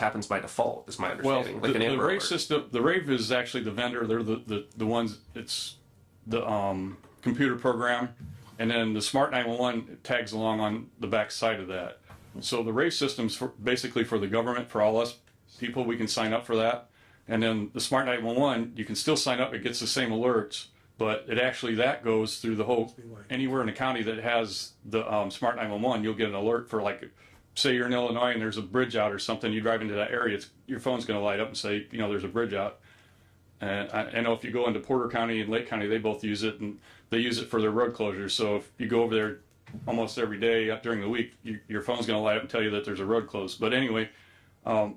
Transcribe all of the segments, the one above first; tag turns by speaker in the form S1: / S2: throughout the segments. S1: happens by default, is my
S2: Well,
S1: understanding.
S2: the,
S1: like an
S2: the
S1: Amber
S2: rave
S1: Alert.
S2: system, the rave is actually the vendor. They're the, the, the ones, it's the um, computer program. And then the smart 911 tags along on the back side of that. So the rave system's for, basically for the government, for all us people, we can sign up for that. And then the smart 911, you can still sign up. It gets the same alerts, but it actually, that goes through the whole, anywhere in the county that has the um, smart 911, you'll get an alert for like say you're in Illinois and there's a bridge out or something, you drive into that area, it's, your phone's going to light up and say, you know, there's a bridge out. And I, I know if you go into Porter County and Lake County, they both use it and they use it for their road closures. So if you go over there almost every day up during the week, you, your phone's going to light up and tell you that there's a road closed. But anyway, um,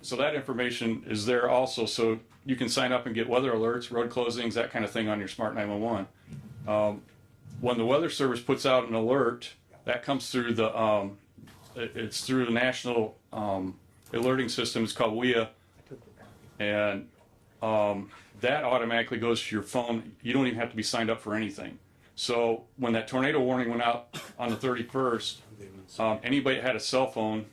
S2: so that information is there also. So you can sign up and get weather alerts, road closings, that kind of thing on your smart 911. Um, when the weather service puts out an alert, that comes through the um, it- it's through the national um, alerting system. It's called WIA, and um, that automatically goes to your phone. You don't even have to be signed up for anything. So when that tornado warning went out on the 31st, um, anybody that had a cell phone,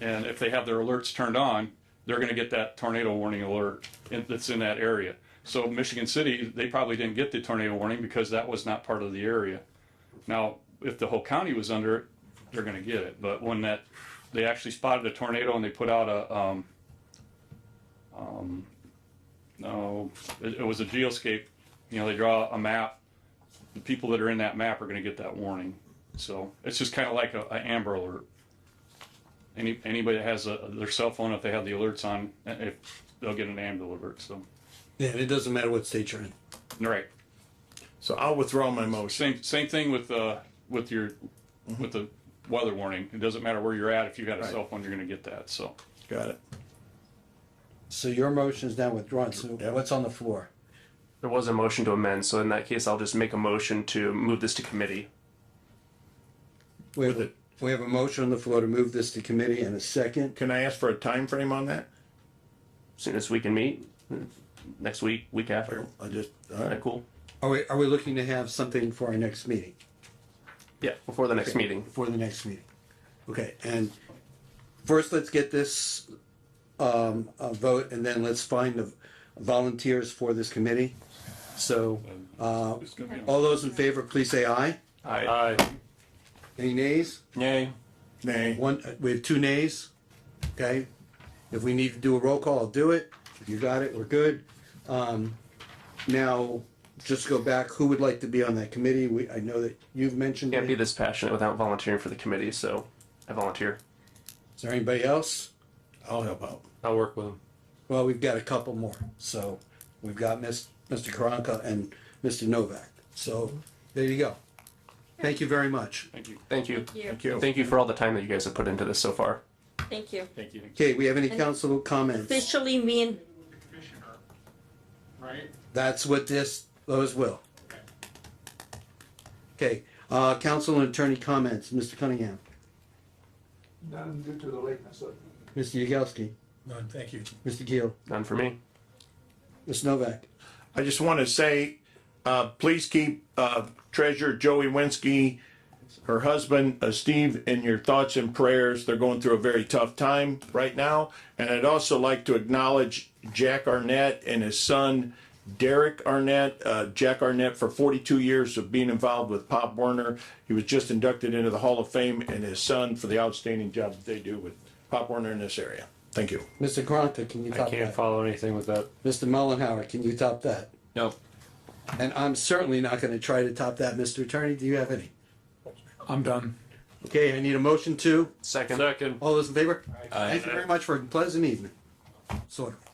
S2: and if they have their alerts turned on, they're going to get that tornado warning alert in, that's in that area. So Michigan City, they probably didn't get the tornado warning because that was not part of the area. Now, if the whole county was under it, they're gonna get it, but when that, they actually spotted a tornado and they put out a, um, um, no, it, it was a geoscape, you know, they draw a map, the people that are in that map are gonna get that warning. So, it's just kinda like a, a Amber Alert. Any, anybody that has a, their cell phone, if they have the alerts on, uh, if, they'll get an Amber Alert, so,
S3: Yeah, and it doesn't matter what state you're in.
S2: right.
S4: So I'll withdraw my motion.
S2: Same, same thing with, uh, with your, with the weather warning. It doesn't matter where you're at. If you got a cell phone, you're gonna get that, so.
S4: Got it.
S3: So your motion is now withdrawn, so
S4: Yeah.
S3: what's on the floor?
S1: There was a motion to amend, so in that case, I'll just make a motion to move this to committee.
S3: We have, we have a motion on the floor to move this to committee and a second.
S4: Can I ask for a time frame on that?
S1: As Soon as we can meet, next week, week after. Is
S4: I just, all
S1: that
S4: right.
S1: cool?
S3: Are we, are we looking to have something for our next meeting,
S1: Yeah, before the next meeting.
S3: for the next meeting? Okay, and first let's get this, um, a vote and then let's find the volunteers for this committee. So, uh,
S2: It's gonna be on-
S3: all those in favor, please say aye.
S1: Aye.
S3: Any nays?
S1: Yay.
S4: Nay.
S3: One, we have two nays, okay? If we need to do a roll call, I'll do it. If you got it, we're good. Um, now, just go back, who would like to be on that committee? We, I know that you've mentioned
S1: Can't be
S3: it.
S1: this passionate without volunteering for the committee, so I volunteer.
S3: Is there anybody else?
S4: I'll help out.
S1: I'll work with him.
S3: Well, we've got a couple more, so we've got Miss, Mr. Karanka and Mr. Novak. So, there you go. Thank you very much.
S2: Thank you.
S1: Thank you.
S4: Thank you.
S1: Thank you for all the time that you guys have put into this so far.
S5: Thank you.
S2: Thank you.
S3: Okay, we have any council comments?
S5: Officially, me and
S2: Right?
S3: That's what this, those will. Okay, uh, council and attorney comments, Mr. Cunningham.
S6: None due to the lateness of
S3: Mr. Yagowski.
S6: None, thank you.
S3: Mr. Keel.
S1: None for me.
S3: Ms. Novak.
S4: I just want to say, uh, please keep, uh, Treasurer Joey Winsky, her husband, uh, Steve, in your thoughts and prayers. They're going through a very tough time right now. And I'd also like to acknowledge Jack Arnett and his son, Derek Arnett. Uh, Jack Arnett, for 42 years of being involved with Pop Warner, he was just inducted into the Hall of Fame, and his son for the outstanding job that they do with Pop Warner in this area. Thank you.
S3: Mr. Karanka, can you top that?
S1: follow anything with that.
S3: Mr. Mullenhour, can you top that?
S7: No,
S3: And I'm certainly not gonna try to top that, Mr. Attorney. Do you have any?
S6: I'm done.
S3: Okay, I need a motion to.
S1: Second.
S7: second.
S3: All those in favor?
S7: Aye.
S3: Thank you very much for a pleasant evening. Sort of.